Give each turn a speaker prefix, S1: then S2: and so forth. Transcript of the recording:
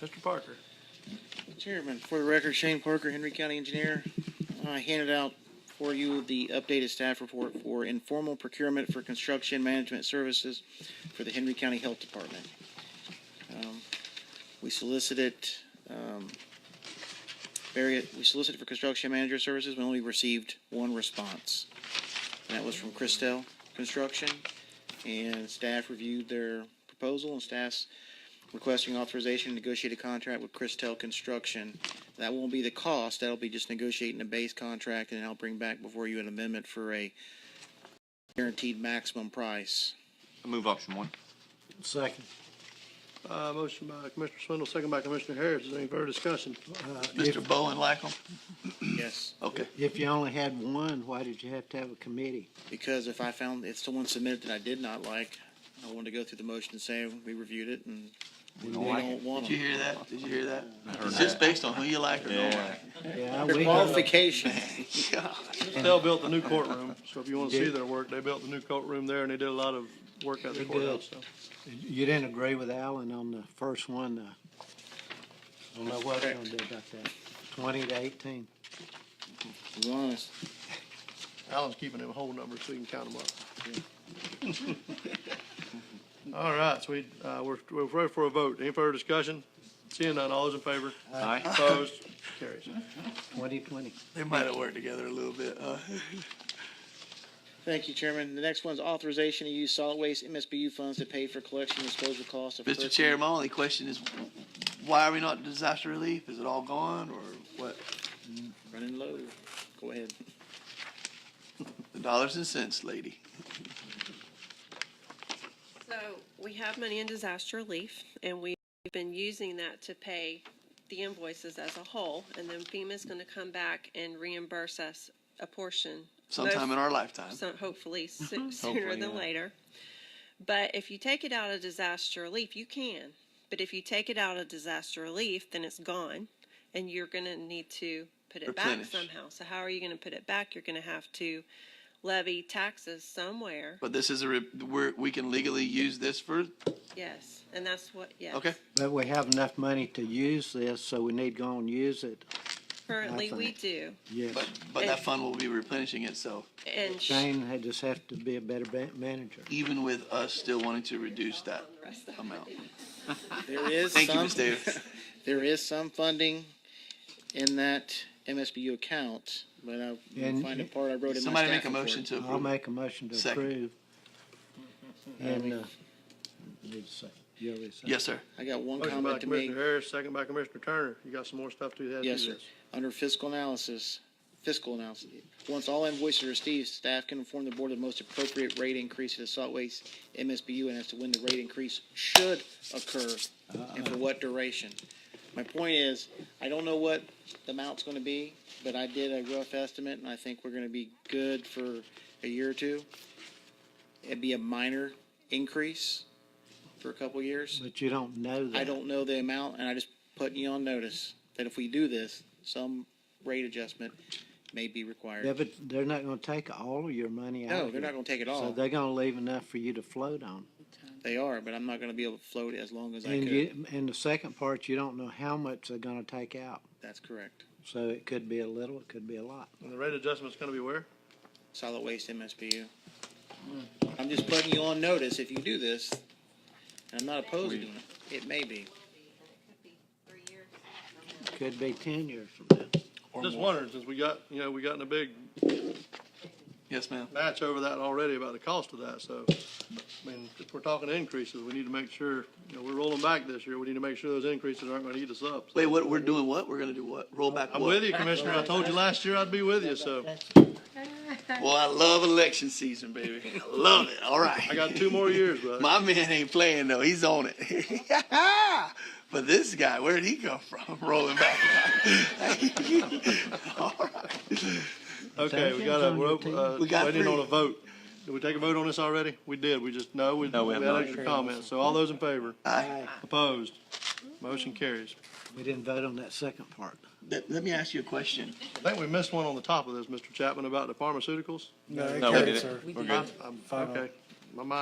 S1: Mr. Parker.
S2: Chairman, for the record, Shane Parker, Henry County Engineer. I handed out for you the updated staff report for informal procurement for construction management services for the Henry County Health Department. Um, We solicited, um, various, we solicited for construction manager services, we only received one response. And that was from Christel Construction, and staff reviewed their proposal, and staff's requesting authorization to negotiate a contract with Christel Construction. That won't be the cost, that'll be just negotiating a base contract, and I'll bring back before you an amendment for a guaranteed maximum price.
S3: I move option one.
S4: Second.
S1: Uh, motion by Commissioner Swindle, second by Commissioner Harris. Is there any further discussion?
S4: Uh, if-
S3: Mr. Bowen Lackland?
S2: Yes.
S3: Okay.
S4: If you only had one, why did you have to have a committee?
S2: Because if I found, if someone submitted that I did not like, I wanted to go through the motion and say, we reviewed it, and we
S3: don't like
S2: don't want
S3: Did you
S2: them.
S3: hear that? Did you hear that? It's just based on who you like or don't like.
S4: Yeah,
S2: Their
S4: we-
S2: qualification.
S3: Yeah.
S1: They'll built the new courtroom, so if you want to see
S4: Did-
S1: their work, they built the new courtroom there and they did a lot of work out of the
S4: They did.
S1: courthouse, so.
S4: You didn't agree with Alan on the first one, uh, I don't know what we're gonna do about that, twenty to eighteen.
S2: Be honest.
S1: Alan's keeping them whole numbers so you can count them up. All right, so we, uh, we're, we're ready for a vote. Any further discussion? Seeing none, all those in favor?
S3: Aye.
S1: Opposed? Carries.
S4: Twenty twenty.
S3: They might have worked together a little bit, huh?
S2: Thank you, Chairman. The next one's authorization to use solid waste MSBU funds to pay for collection and disposal costs of.
S3: Mr.
S2: personal-
S3: Chair, my only question is, why are we not in disaster relief? Is it all gone or what?
S2: Running low. Go ahead.
S3: The dollars and cents, lady.
S5: So we have money in disaster relief and we've been using that to pay the invoices as a whole. And then FEMA's going to come back and reimburse us a portion.
S3: Sometime in our lifetime.
S5: So hopefully soo- sooner than later. But if you take it out of disaster relief, you can. But if you take it out of disaster relief, then it's gone and you're going to need to put it back
S3: Replenish.
S5: somehow. So how are you going to put it back? You're going to have to levy taxes somewhere.
S3: But this is a, re- we're, we can legally use this for,
S5: Yes. And that's what, yes.
S3: okay?
S4: But we have enough money to use this, so we need to go and use it,
S5: Currently, we
S4: think.
S5: do.
S4: yes.
S3: But, but that fund will be replenishing itself,
S5: And sh-
S4: Shane had just have to be a better ba- manager.
S3: even with us still wanting to reduce that amount.
S2: There is
S3: Thank you,
S2: some-
S3: Ms. Davis.
S2: There is some funding in that MSBU account, but I will
S4: And-
S2: find a part I wrote in my
S3: Somebody make
S2: staff
S3: a motion
S2: report.
S3: to
S4: I'll
S3: approve.
S4: make a motion to
S3: Second.
S4: approve. And, uh, need a second. You already said.
S3: Yes, sir.
S2: I got one
S1: Motion by
S2: comment to make.
S1: Commissioner Harris, second by Commissioner Turner. You got some more stuff to add to
S2: Yes,
S1: this?
S2: sir. Under fiscal analysis, fiscal analysis, once all invoices are received, staff can inform the board of the most appropriate rate increase to the solid waste MSBU and as to when the rate increase should occur and for what duration. My point is, I don't know what the amount's gonna be, but I did a rough estimate and I think we're gonna be good for a year or two. It'd be a minor increase for a couple years.
S4: But you don't know that.
S2: I don't know the amount, and I just put you on notice that if we do this, some rate adjustment may be
S4: Yeah,
S2: required.
S4: but they're not gonna take all of your money out.
S2: No,
S4: of
S2: they're
S4: it.
S2: not gonna take it
S4: So
S2: all.
S4: they're gonna leave enough for you to float on.
S2: They are, but I'm not gonna be able to float it as long as I
S4: And
S2: could.
S4: you, and the second part, you don't know how much they're gonna take out.
S2: That's correct.
S4: So it could be a little, it could be a lot.
S1: And the rate adjustment's gonna be where?
S2: Solid waste MSBU. I'm just putting you on notice if you do this, and I'm not opposed to doing it. It may be.
S4: Could be ten years from now.
S1: Just wondering, since we got, you know, we got in a big
S3: Yes, ma'am.
S1: match over that already about the cost of that, so, I mean, if we're talking increases, we need to make sure, you know, we're rolling back this year, we need to make sure those increases aren't gonna eat us up.
S3: Wait, what, we're doing what? We're gonna do what? Roll back what?
S1: I'm with you, Commissioner, I told you last year I'd be with you, so,
S3: Well, I love election season, baby. I love it. All right.
S1: I got two more years, bud.
S3: My man ain't playing though. He's on it. but this guy, where'd he come from? Rolling back. All right.
S1: Okay, we got a, we're,
S3: We
S1: uh,
S3: got
S1: waiting on
S3: three.
S1: a vote. Did we take a vote on this already? We did, we just, no, we,
S3: No,
S1: we
S3: we
S1: had
S3: have not.
S1: extra comments, so all those in favor?
S3: Aye.
S1: Opposed? Motion carries.
S4: We didn't vote on that second part.
S3: Let, let me ask you a question.
S1: I think we missed one on the top of this, Mr. Chapman, about the pharmaceuticals.
S6: No, it
S3: No, we
S6: carries,
S3: did it.
S6: sir.
S3: We're good.
S1: I'm, okay, my mind